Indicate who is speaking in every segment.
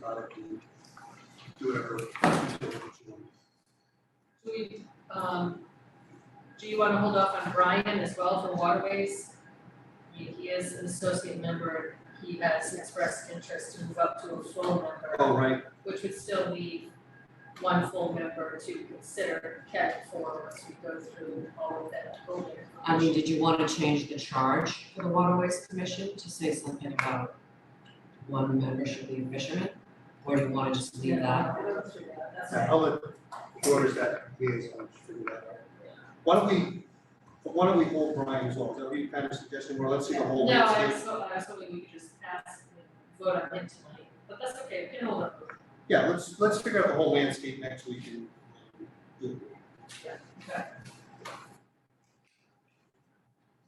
Speaker 1: product and do whatever. utilities you want.
Speaker 2: Do we, um, do you wanna hold off on Brian as well for waterways? He, he is an associate member, he has expressed interest to move up to a full member,
Speaker 1: All Oh, right,
Speaker 2: which would still leave one full member to consider cat for once we go through all of that voting.
Speaker 3: I mean, did you wanna change the charge for the waterways commission to say something about one member should be a fisherman? Or do you wanna just leave that?
Speaker 2: Yeah, we'll go through that, that's all right.
Speaker 1: so I'll let whoever's that liaison figure that out. Why don't we, why don't we hold Brian's law, is that what you kind of suggesting, or let's see the whole
Speaker 2: No, I
Speaker 1: landscape?
Speaker 2: was, hoping- I was hoping we could just ask, and vote on him tonight, but that's okay, we can hold up.
Speaker 1: Yeah, let's, let's figure out the whole landscape next week and. do it.
Speaker 2: Okay.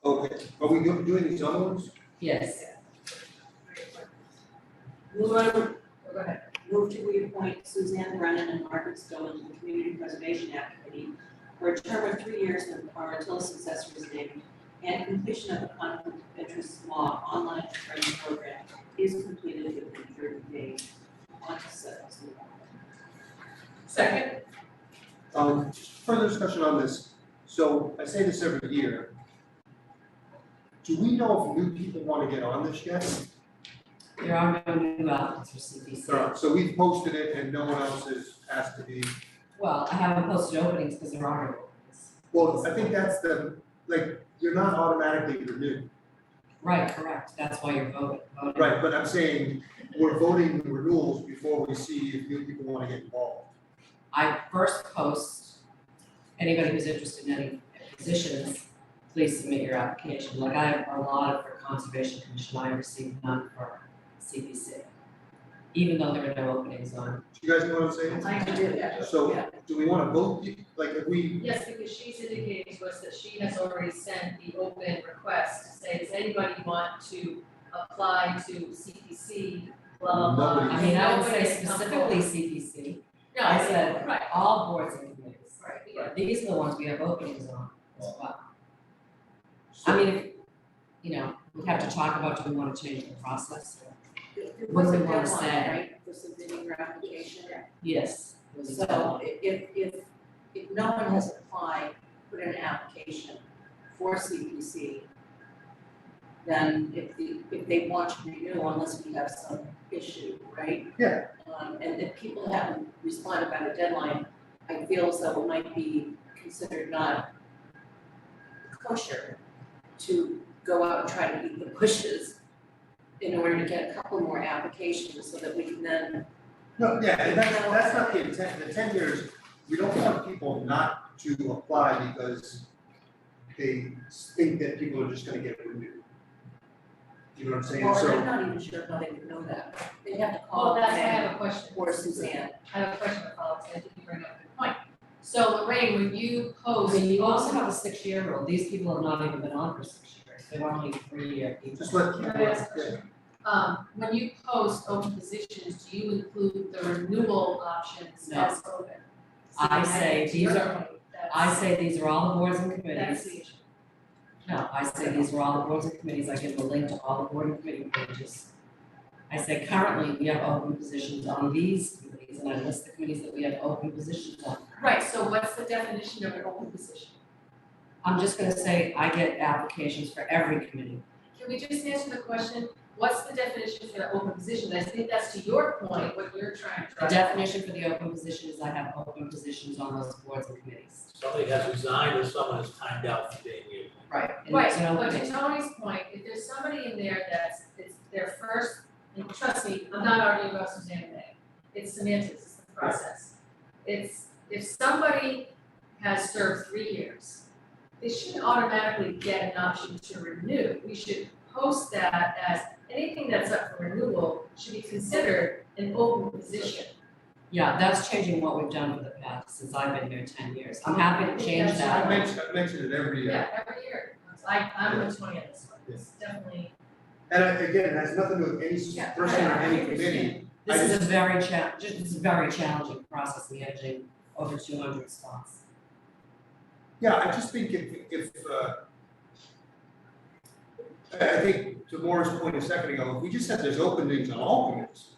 Speaker 1: Okay, are we do- doing these other ones?
Speaker 3: Yes,
Speaker 4: Move,
Speaker 2: Oh, Go ahead.
Speaker 4: move to reappoint Suzanne Brennan and Margaret Stone to the Community Preservation Act Committee for a term of three years and or until a successor is named and completion of the conflict of interest law online training program is completed within thirty days. On to sets.
Speaker 2: Second,
Speaker 1: Um, further discussion on this, so I say this every year. Do we know if new people wanna get on this yet?
Speaker 3: there are no new applicants for CPC.
Speaker 1: So we've posted it and no one else has asked to be,
Speaker 3: Well, I haven't posted openings because there are no openings.
Speaker 1: well, I think that's the, like, you're not automatically renewed.
Speaker 3: Right, correct, that's why you're voting, voting.
Speaker 1: Right, but I'm saying, we're voting the renewals before we see if new people wanna get involved.
Speaker 3: I first post, anybody who's interested in any positions, please submit your application. Like I have a lot for Conservation Commission, I received none for CPC. Even though there are no openings on,
Speaker 1: Do you guys know what I'm saying?
Speaker 2: I do, yeah.
Speaker 1: So, do we wanna vote, like, if we,
Speaker 2: Yes, because she's indicating to us that she has already sent the open request to say, does anybody want to apply to CPC, blah, blah, blah.
Speaker 1: Nobody.
Speaker 3: I mean, I would say
Speaker 2: Nobody's come
Speaker 3: specifically
Speaker 2: forward.
Speaker 3: CPC,
Speaker 2: No,
Speaker 3: I
Speaker 2: yeah,
Speaker 3: said-
Speaker 2: Right,
Speaker 3: all boards and committees.
Speaker 2: right, we got it.
Speaker 3: These are the ones we have openings on as well.
Speaker 1: so-
Speaker 3: I mean, if, you know, we have to talk about, do we wanna change the process?
Speaker 4: There
Speaker 3: What
Speaker 4: was
Speaker 3: do
Speaker 4: a
Speaker 3: we wanna
Speaker 4: deadline,
Speaker 3: say?
Speaker 4: right, for submitting your application.
Speaker 3: Yes. there's a
Speaker 4: So
Speaker 3: deadline.
Speaker 4: i- if, if, if no one has applied, put in an application for CPC, then if the, if they want to renew unless we have some issue, right?
Speaker 1: Yeah.
Speaker 4: Um, and if people haven't responded by the deadline, I feel as though it might be considered not kosher to go out and try to beat the bushes in order to get a couple more applications so that we can then
Speaker 1: No, yeah, and that's, that's not the intent, the intent here is, we don't want people not to apply because they think that people are just gonna get renewed. You know what I'm saying,
Speaker 4: Well, and
Speaker 1: so,
Speaker 4: I'm not even sure how they would know that. They'd have to
Speaker 2: Well,
Speaker 4: call
Speaker 2: that's, I
Speaker 4: Lorraine
Speaker 2: have a question.
Speaker 4: or Suzanne.
Speaker 2: I have a question about policy, I think you bring up a good point. So Lorraine, when you post,
Speaker 3: Well, you also
Speaker 2: Can
Speaker 3: have a six-year rule, these people have not even been on for six years, they're only three-year people.
Speaker 1: just let.
Speaker 2: I ask a question? Um, when you post open positions, do you include the renewal options
Speaker 3: No.
Speaker 2: as open?
Speaker 3: I
Speaker 2: See,
Speaker 3: say
Speaker 2: think
Speaker 3: these
Speaker 2: you're
Speaker 3: are-
Speaker 2: right. That's-
Speaker 3: I say these are all the boards and
Speaker 2: That's
Speaker 3: committees,
Speaker 2: the issue.
Speaker 3: no, I say these are all the boards and committees, I give the link to all the board and committee pages. I say currently, we have open positions on these committees, and I list the committees that we have open positions on.
Speaker 2: Right, so what's the definition of an open position?
Speaker 3: I'm just gonna say, I get applications for every committee,
Speaker 2: Can we just answer the question, what's the definition for an open position? I think that's to your point, what you're trying to
Speaker 3: the
Speaker 2: drive.
Speaker 3: definition for the open position is I have open positions on those boards and committees.
Speaker 5: Somebody has resigned or someone has timed out for being here.
Speaker 3: Right. And
Speaker 2: Right,
Speaker 3: there's no
Speaker 2: but
Speaker 3: opening.
Speaker 2: to Tony's point, if there's somebody in there that's, it's their first, and trust me, I'm not arguing about Suzanne today. It's semantics, it's the process. It's, if somebody has served three years, they shouldn't automatically get an option to renew. We should post that as anything that's up for renewal should be considered an open position.
Speaker 3: Yeah, that's changing what we've done for the past, since I've been here ten years. I'm happy to change
Speaker 2: That's
Speaker 3: that.
Speaker 1: I mentioned, I mentioned it every year,
Speaker 2: Yeah, every year. I, I'm with Tony on this one. It's definitely,
Speaker 1: and I- again, it has nothing to do with any s-
Speaker 2: Yeah,
Speaker 1: person
Speaker 2: I-
Speaker 1: or
Speaker 2: I
Speaker 1: any
Speaker 2: understand.
Speaker 1: committee,
Speaker 3: This is a very cha, just, it's a very challenging process managing over two hundred spots.
Speaker 1: yeah, I just think if, if, uh. I, I think to Laura's point a second ago, if we just said there's openings on all committees,